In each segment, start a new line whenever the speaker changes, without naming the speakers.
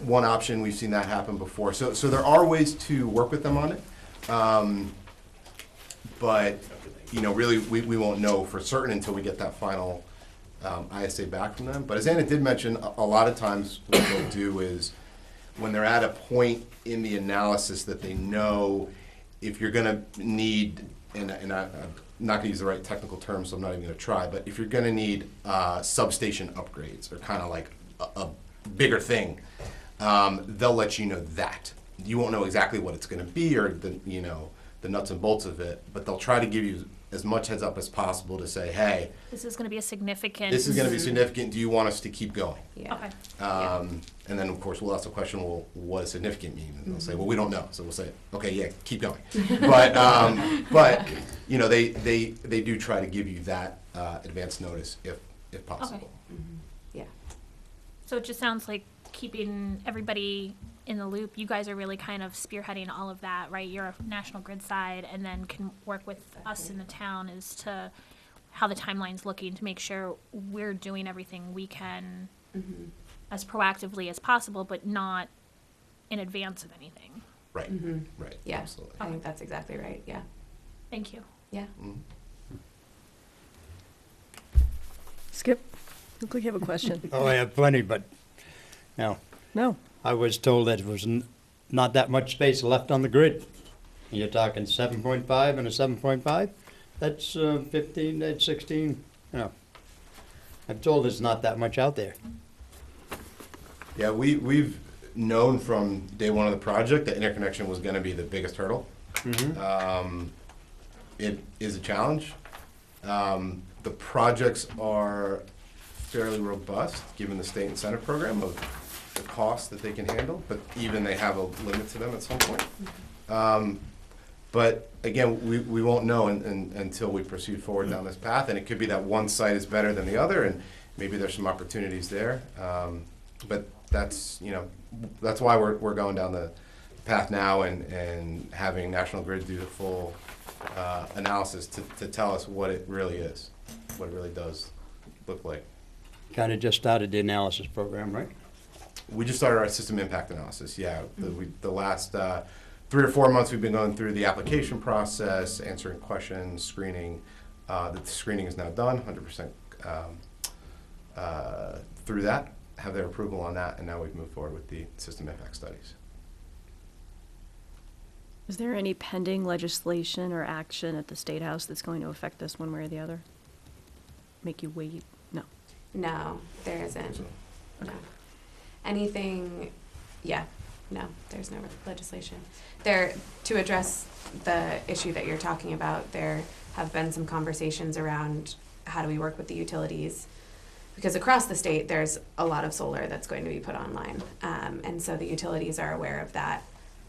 one option. We've seen that happen before. So, so there are ways to work with them on it. Um, but, you know, really, we, we won't know for certain until we get that final um, ISA back from them. But as Anna did mention, a, a lot of times what they'll do is when they're at a point in the analysis that they know if you're going to need, and, and I, I'm not going to use the right technical term, so I'm not even going to try, but if you're going to need uh, substation upgrades or kind of like a, a bigger thing, um, they'll let you know that. You won't know exactly what it's going to be or the you know the nuts and bolts of it, but they'll try to give you as much heads up as possible to say, hey,
This is going to be a significant.
this is going to be significant. Do you want us to keep going?
Okay.
Mhm. Yeah.
Um, and then, of course, we'll ask the question, well, what does significant mean? And
Mhm.
they'll say, well, we don't know. So we'll say, okay, yeah, keep going. But, um, but, you know, they, they, they do try to give you that, uh, advance notice if, if possible.
Yeah.
So it just sounds like keeping everybody in the loop. You guys are really kind of spearheading all of that, right? You're a national grid side and then can work with us in the town as to how the timeline's looking to make sure we're doing everything we can as proactively as possible, but not in advance of anything.
Right,
Mhm.
right,
Yeah.
absolutely.
I think that's exactly right. Yeah.
Thank you.
Yeah.
Mhm.
Skip, look like you have a question.
Oh, I have plenty, but, now,
No,
I was told that it was n- not that much space left on the grid. And You're talking seven point five and a seven point five? That's uh, fifteen, that's sixteen, you know. I'm told there's not that much out there.
Yeah, we, we've known from day one of the project that interconnection was gonna be the biggest hurdle. Um, it is a challenge. Um, the projects are fairly robust, given the state incentive program of the cost that they can handle, but even they have a limit to them at some point. Um, but again, we, we won't know un- un- until we proceed forward down this path, and it could be that one site is better than the other, and maybe there's some opportunities there. Um, But that's, you know, that's why we're, we're going down the path now and, and having National Grid do the full uh, analysis to, to tell us what it really is, what it really does look like.
Kinda just started the analysis program, right?
We just started our system impact analysis, yeah. The, we, the last uh, three or four months, we've been going through the application process, answering questions, screening. Uh, the screening is now done, 100% um, uh, through that, have their approval on that, and now we've moved forward with the system impact studies.
is there any pending legislation or action at the State House that's going to affect this one way or the other? Make you wait? No.
No, there isn't.
So,
No. Anything, yeah, no, there's no legislation. There, to address the issue that you're talking about, there have been some conversations around how do we work with the utilities? Because across the state, there's a lot of solar that's going to be put online. Um, and so the utilities are aware of that.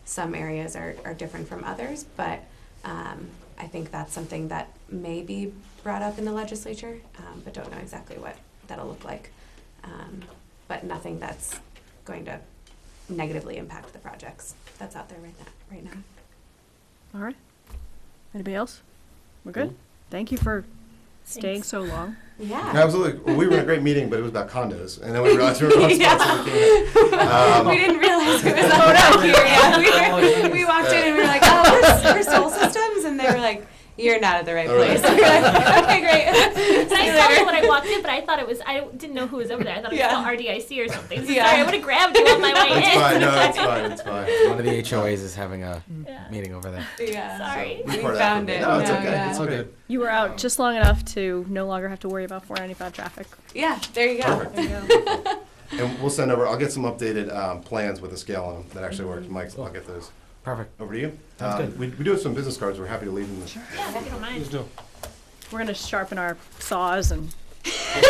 Some areas are, are different from others, but um, I think that's something that may be brought up in the legislature, um, but don't know exactly what that'll look like. Um, but nothing that's going to negatively impact the projects that's out there right now. Right now.
All right. Anybody else? We're good? Thank you for staying
Thanks.
so long.
Yeah.
Absolutely. Well, we were in a great meeting, but it was about condos, and then we realized we were on
Yeah.
sponsor. we came out.
we
Um,
didn't realize it was out here. Yeah, we, were, we walked in and we were like, "Oh, we're, we're Soul Systems," and they were like, "You're not at the right
All right.
place." We were like, okay, great.
But
See
I
you
saw
later.
it when I walked in, but I thought it was, I didn't know who was over there. I thought it
Yeah.
was still RDIC or something. So
Yeah.
Sorry, I would have grabbed you on my way in.
It's fine, no, it's fine, it's fine.
One of the HOAs is having a
Yeah.
meeting over there.
yeah.
Sorry.
We
We
part
found
after-
it.
No, it's
No,
okay,
yeah.
it's
All
okay.
good.
You were out just long enough to no longer have to worry about 495 traffic.
Yeah. There you go.
Perfect. And we'll send over, I'll get some updated um, plans with a scale on them that actually works.
Mm-hmm.
Mike, I'll get those
Perfect.
over to you.
Sounds
Um,
good.
We, we do have some business cards, we're happy to leave them. Sure.
Yeah, if you don't mind.
We're going to sharpen our saws and
Yeah,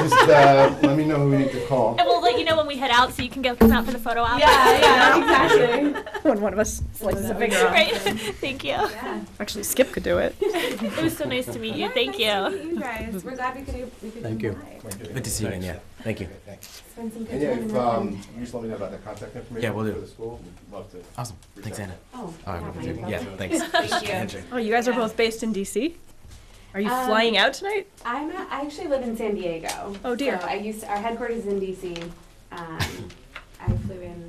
just, uh, let me know who we need to call.
And we'll let you know when we head out so you can go come out for the photo op.
Yeah. Yeah. Exactly.
when one of us slices a finger off.
Right. Thank you.
Yeah.
Actually, Skip could do it.
It was so nice to meet you. Thank you.
nice To meet you guys. We're glad we could. We could
Thank
come
you.
by.
Good to see you again, yeah. Thank you.
Spend some good
And yeah,
time in
if,
the
um,
wind.
you just let me know about the contact information.
Yeah, will do.
For the school, we'd love to.
Awesome. Thanks, Anna.
Oh,
All right,
not
we'll do-
mine.
yeah, thanks.
you.
Handshake.
Oh, you guys are
Yeah.
both based in DC? Are you
Um,
flying out tonight?
I'm a, I actually live in San Diego.
Oh, dear.
So I used to, our headquarters is in DC. Um, I flew